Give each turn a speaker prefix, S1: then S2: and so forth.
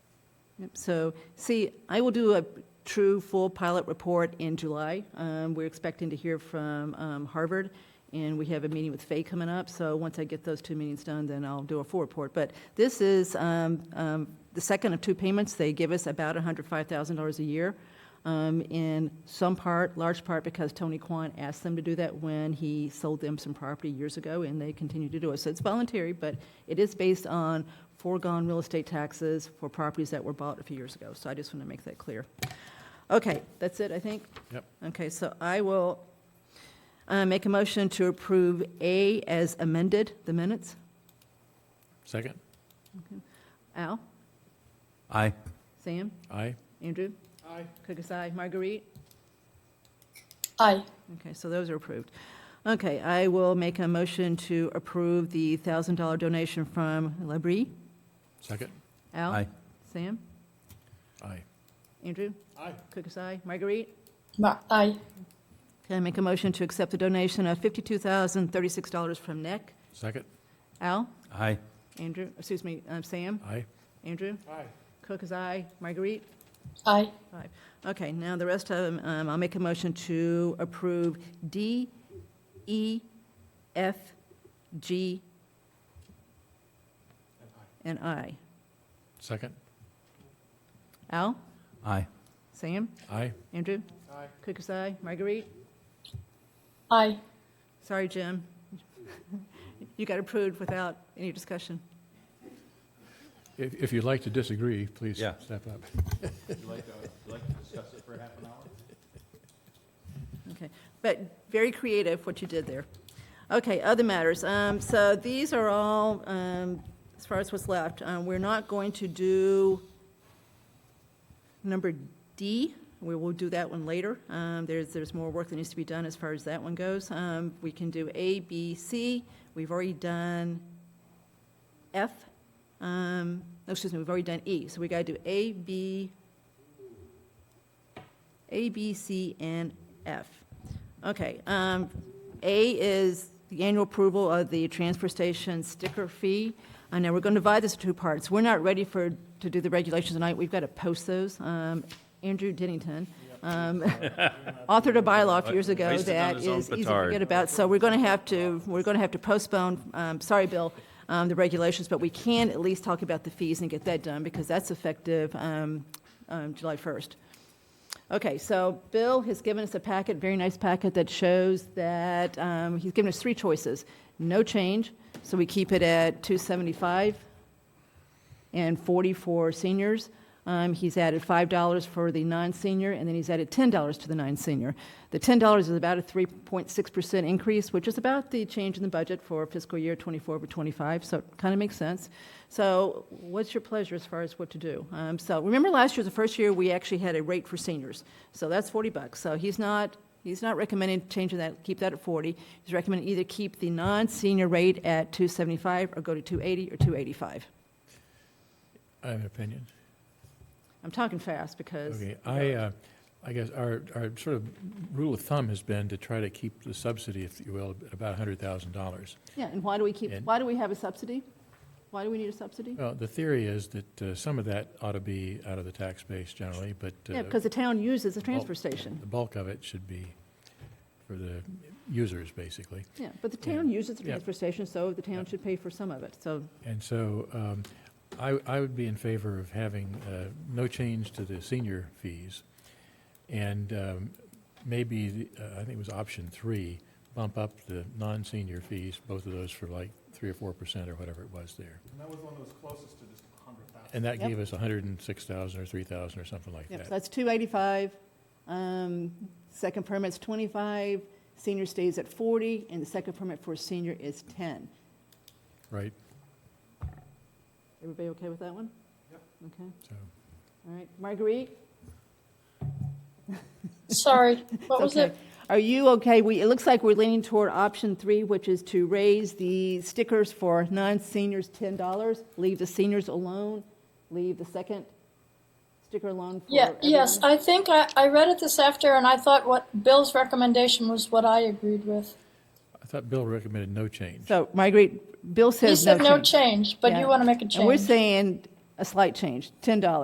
S1: Yep, So, see, I will do a true full pilot report in July. Um, We're expecting to hear from um, Harvard, and we have a meeting with Fay coming up, so once I get those two meetings done, then I'll do a full report. But this is um, um, the second of two payments. They give us about $105,000 a year, um, in some part, large part, because Tony Kwan asked them to do that when he sold them some property years ago, and they continue to do it. So it's voluntary, but it is based on foregone real estate taxes for properties that were bought a few years ago. So I just want to make that clear. Okay, that's it, I think?
S2: Yep.
S1: Okay, so I will uh, make a motion to approve A as amended, the minutes.
S2: Second?
S1: Al,
S3: Aye.
S1: Sam,
S2: Aye.
S1: Andrew? Aye. Cookus, aye. Marguerite?
S4: Aye.
S1: Okay, so those are approved. Okay, I will make a motion to approve the $1,000 donation from Labrie.
S2: Second?
S1: Al?
S3: Aye.
S1: Sam?
S2: Aye.
S1: Andrew? Aye. Cookus, aye. Marguerite?
S4: Ma- aye.
S1: Can I make a motion to accept the donation of $52,036 from NEC?
S2: Second?
S1: Al?
S3: Aye.
S1: Andrew, excuse me, uh, Sam?
S2: Aye.
S1: Andrew?
S2: Aye.
S1: Cook is aye. Marguerite?
S4: Aye.
S1: Five. Okay, now the rest of them, um, I'll make a motion to approve D, E, F, G, and I.
S2: Second?
S1: Al?
S3: Aye.
S1: Sam?
S2: Aye.
S1: Andrew? Aye. Cook is aye. Marguerite?
S4: Aye.
S1: Sorry, Jim. You got approved without any discussion.
S2: If, if you'd like to disagree, please
S3: Yeah.
S2: step up.
S1: Okay, but very creative what you did there. Okay, other matters. Um, So these are all, um, as far as what's left, Um, we're not going to do number D. We will do that one later. Um, There's, there's more work that needs to be done as far as that one goes. Um, We can do A, B, C. We've already done F. Um, no, Excuse me, we've already done E. So we got to do A, B, a, B, C, and F. Okay, um, A is the annual approval of the transfer station sticker fee. I know we're going to divide this into two parts. We're not ready for, to do the regulations tonight. We've got to post those. Um, Andrew Dennington, um, authored a bylaw a few years ago
S3: Wasted on
S1: that
S3: his own
S1: is easy to
S3: petard.
S1: forget about. So we're going to have to, we're going to have to postpone, um, sorry, Bill, um, the regulations, but we can at least talk about the fees and get that done because that's effective um, um, July 1st. Okay, so Bill has given us a packet, very nice packet, that shows that, um, he's given us three choices. No change, so we keep it at 275 and 40 for seniors. Um, He's added $5 for the non-senior, and then he's added $10 to the non-senior. The $10 is about a 3.6% increase, which is about the change in the budget for fiscal year '24 over '25, so it kind of makes sense. So what's your pleasure as far as what to do? Um, So remember last year, the first year, we actually had a rate for seniors, so that's 40 bucks. So he's not, he's not recommending changing that, keep that at 40. He's recommending either keep the non-senior rate at 275 or go to 280 or 285.
S2: I have an opinion.
S1: I'm talking fast because.
S2: Okay, I, uh, I guess our, our sort of rule of thumb has been to try to keep the subsidy, if you will, at about $100,000.
S1: Yeah, and why do we keep,
S2: And- Uh,
S1: why do we have a subsidy? Why do we need a subsidy?
S2: Well, the theory is that uh, some of that ought to be out of the tax base generally, but
S1: Yeah,
S2: uh,
S1: because the town uses the transfer
S2: well,
S1: station.
S2: the bulk of it should be for the users, basically.
S1: Yeah, but the town uses the
S2: Yeah.
S1: transfer station, so the
S2: Yeah.
S1: town should pay for some of it, so,
S2: And so um, I, I would be in favor of having uh, no change to the senior fees. And um, maybe, the- uh, I think it was option three, bump up the non-senior fees, both of those for like three or four percent or whatever it was there.
S5: And that was one that was closest to this hundred thousand.
S2: And that
S1: Yep.
S2: gave us a hundred and six thousand or three thousand or something like
S1: yep, so
S2: that.
S1: that's two eighty-five. Um, second permit's twenty-five, senior stays at forty, and the second permit for a senior is ten.
S2: Right?
S1: Everybody okay with that one?
S5: Yep.
S1: Okay,
S2: So,
S1: all right. Marguerite?
S4: Sorry. What was
S1: Okay.
S4: it?
S1: Are you okay? We, it looks like we're leaning toward option three, which is to raise the stickers for non-seniors ten dollars, leave the seniors alone, leave the second sticker alone for
S4: Yeah.
S1: everyone.
S4: Yes. I think I, I read it this after, and I thought what Bill's recommendation was what I agreed with.
S2: I thought Bill recommended no change.
S1: So, Marguerite, Bill
S4: He
S1: says no
S4: said
S1: change.
S4: no change, but
S1: Yeah.
S4: you want to make a change.
S1: And we're saying a slight change, ten dollars.